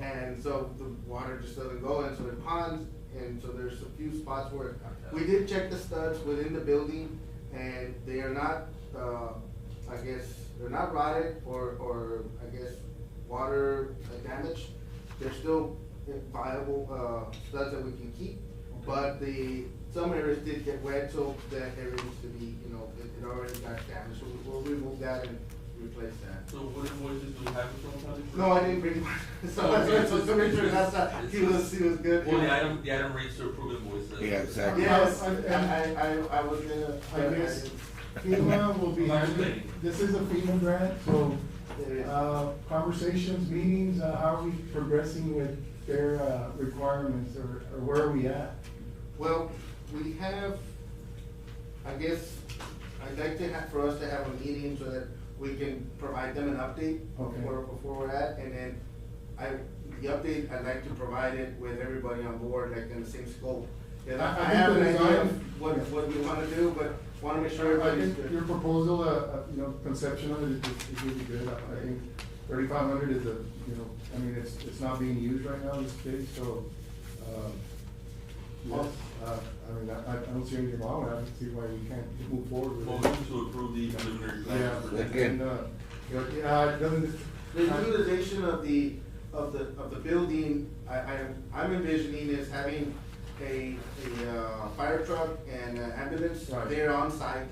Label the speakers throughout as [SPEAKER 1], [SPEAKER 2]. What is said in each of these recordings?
[SPEAKER 1] and so the water just doesn't go into the ponds, and so there's a few spots where, we did check the studs within the building, and they are not, uh, I guess, they're not rotted or, or, I guess, water damaged. They're still viable, uh, studs that we can keep, but the, some areas did get wet, so that area needs to be, you know, it, it already got damaged, so we'll remove that and replace that.
[SPEAKER 2] So what invoices do you have from County?
[SPEAKER 1] No, I didn't bring one. So I was just to make sure that's not, he was, he was good.
[SPEAKER 2] Well, the item, the item reads to approve invoices.
[SPEAKER 3] Yeah, exactly.
[SPEAKER 1] Yes, I, I, I- I was gonna,
[SPEAKER 4] I guess FEMA will be, handling- this is a FEMA grant, so,
[SPEAKER 1] There is.
[SPEAKER 4] uh, conversations, meetings, uh, how are we progressing with their, uh, requirements, or, or where are we at?
[SPEAKER 1] Well, we have, I guess, I'd like to have, for us to have a meeting so that we can provide them an update
[SPEAKER 4] Okay.
[SPEAKER 1] before, before we're at, and then I, the update, I'd like to provide it with everybody on board, like in the same scope. And I,
[SPEAKER 4] I- I
[SPEAKER 1] I
[SPEAKER 4] think
[SPEAKER 1] have
[SPEAKER 4] the
[SPEAKER 1] an idea
[SPEAKER 4] design-
[SPEAKER 1] of what, what we wanna do, but wanna make sure
[SPEAKER 4] I
[SPEAKER 1] everybody's
[SPEAKER 4] think your
[SPEAKER 1] good.
[SPEAKER 4] proposal, uh, uh, you know, conception of it is, is really good, I I think thirty-five hundred is a, you know, I mean, it's, it's not being used right now, this space, so, um, yes, uh, I mean, I, I don't see anything wrong with it, I don't see why we can't move forward with it.
[SPEAKER 2] Motion to approve the preliminary
[SPEAKER 4] Yeah,
[SPEAKER 2] plans. for
[SPEAKER 3] Second.
[SPEAKER 2] next-
[SPEAKER 4] and, uh, you know, yeah, it doesn't.
[SPEAKER 1] The utilization of the, of the, of the building, I, I, I'm envisioning is having a, a, uh, fire truck and an ambulance
[SPEAKER 4] Right.
[SPEAKER 1] there on site,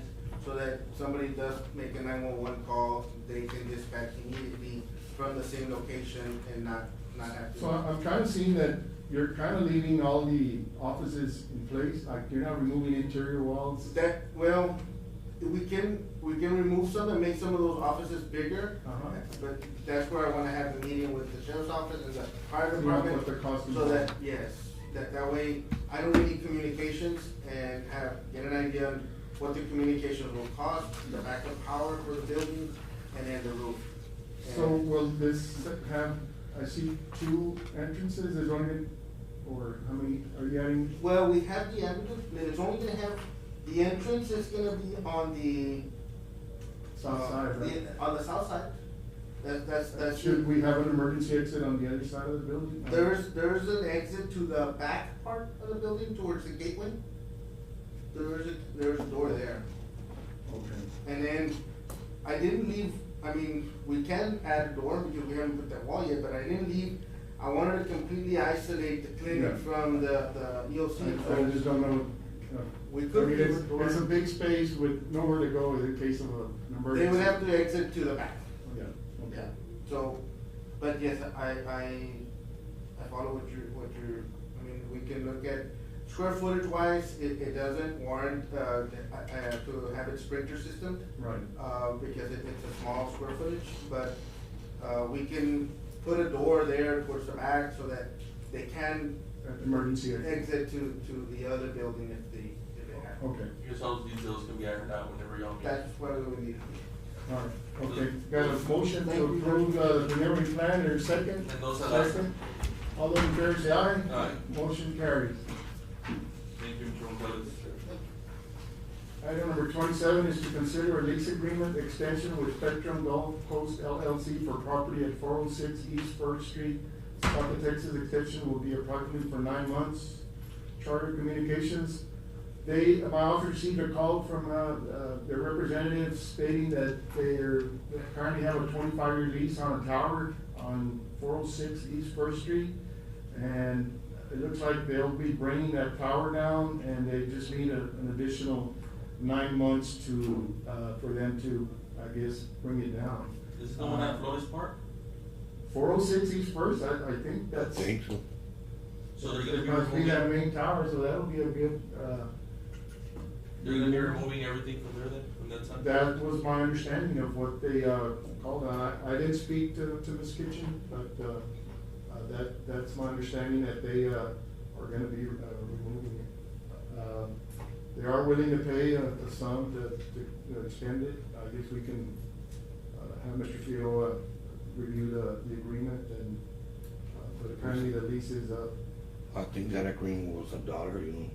[SPEAKER 1] so that somebody does make a nine-one-one call, they can dispatch immediately from the same location and not, not have to.
[SPEAKER 4] So I- I'm kind of seeing that you're kind of leaving all the offices in place, like you're not removing interior walls.
[SPEAKER 1] That, well, we can, we can remove some and make some of those offices bigger.
[SPEAKER 4] Uh-huh.
[SPEAKER 1] But that's where I wanna have the meeting with the sheriff's office and the fire
[SPEAKER 4] You want
[SPEAKER 1] department.
[SPEAKER 4] what the cost
[SPEAKER 1] So
[SPEAKER 4] is.
[SPEAKER 1] that, yes, that, that way, I don't need communications and have, get an idea on what the communications will cost, the backup power for the building, and then the roof.
[SPEAKER 4] So
[SPEAKER 1] And-
[SPEAKER 4] will this have, I see two entrances, there's only, gonna- or how many, are you adding?
[SPEAKER 1] Well, we have the entrance, but it's only gonna have, the entrance is gonna be on the.
[SPEAKER 4] South
[SPEAKER 1] uh,
[SPEAKER 4] side,
[SPEAKER 1] the-
[SPEAKER 4] right?
[SPEAKER 1] On the south side. That, that's, that's.
[SPEAKER 4] Should we have an emergency exit on the other side of the building?
[SPEAKER 1] There's, there's an exit to the back part of the building towards the gateway. There's a, there's a door there.
[SPEAKER 4] Okay.
[SPEAKER 1] And then, I didn't leave, I mean, we can add a door because we haven't put that wall yet, but I didn't leave. I wanted to completely isolate the clinic
[SPEAKER 4] Yeah.
[SPEAKER 1] from the, the E EOC.
[SPEAKER 4] I I just don't know. uh,
[SPEAKER 1] We
[SPEAKER 4] I
[SPEAKER 1] could
[SPEAKER 4] mean,
[SPEAKER 1] leave
[SPEAKER 4] it's-
[SPEAKER 1] a door.
[SPEAKER 4] It's a big space with nowhere to go in case of a- an emergency.
[SPEAKER 1] They would have to exit to the back.
[SPEAKER 4] Yeah,
[SPEAKER 1] Yeah,
[SPEAKER 4] okay.
[SPEAKER 1] so, but yes, I, I, I follow what you're, what you're, I mean, we can look at square footage wise, it, it doesn't warrant, uh, uh, uh, to have it sprinkler system.
[SPEAKER 4] Right.
[SPEAKER 1] Uh, because it, it's a small square footage, but, uh, we can put a door there towards the back so that they can
[SPEAKER 4] An Emergency exit.
[SPEAKER 1] exit to, to the other building if they, if they have.
[SPEAKER 4] Okay,
[SPEAKER 2] I guess all the details can be ironed out whenever y'all meet.
[SPEAKER 1] That's what we need.
[SPEAKER 4] all right, okay. Got a motion to approve uh, the preliminary plan, there's second?
[SPEAKER 2] Mendoza, aye.
[SPEAKER 4] Second. All those in favor say aye.
[SPEAKER 2] Aye.
[SPEAKER 4] Motion carries.
[SPEAKER 2] Thank you, Mr. Gonzalez.
[SPEAKER 4] Item number twenty-seven is to consider a lease agreement extension with Spectrum Gulf Coast LLC for property at four oh six East First Street. South Texas extension will be approximately for nine months. Charter Communications, they, my office received a call from, uh, uh, their representative stating that they're, they currently have a twenty-five year lease on a tower on four oh six East First Street. And it looks like they'll be bringing that tower down and they just need a, an additional nine months to, uh, for them to, I guess, bring it down.
[SPEAKER 2] Is this the one at Flores Park?
[SPEAKER 4] Four oh six East First, I, I think that's.
[SPEAKER 3] Think so.
[SPEAKER 2] So they're gonna be
[SPEAKER 4] It must be that
[SPEAKER 2] removing,
[SPEAKER 4] main tower, so that'll be a good, uh,
[SPEAKER 2] they're gonna be removing everything from there then, from that side?
[SPEAKER 4] That was my understanding of what they, uh, called, it. I, I didn't speak to, to Ms. Kitchen, but, uh, uh, that, that's my understanding that they, uh, are gonna be, uh, removing it. Uh, They are willing to pay a, a sum to, to- to extend it, I guess we can, uh, have Mr. Keo, uh, review the, the agreement and, uh, but apparently the lease is up.
[SPEAKER 3] I think that agreement was a dollar, you know.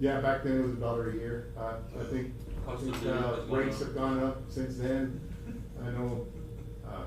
[SPEAKER 4] Yeah, back then it was a dollar a year, I, I think, I
[SPEAKER 2] Cost of
[SPEAKER 4] think,
[SPEAKER 2] living
[SPEAKER 4] uh,
[SPEAKER 2] has gone
[SPEAKER 4] rates
[SPEAKER 2] up.
[SPEAKER 4] have gone up since then. I know, uh,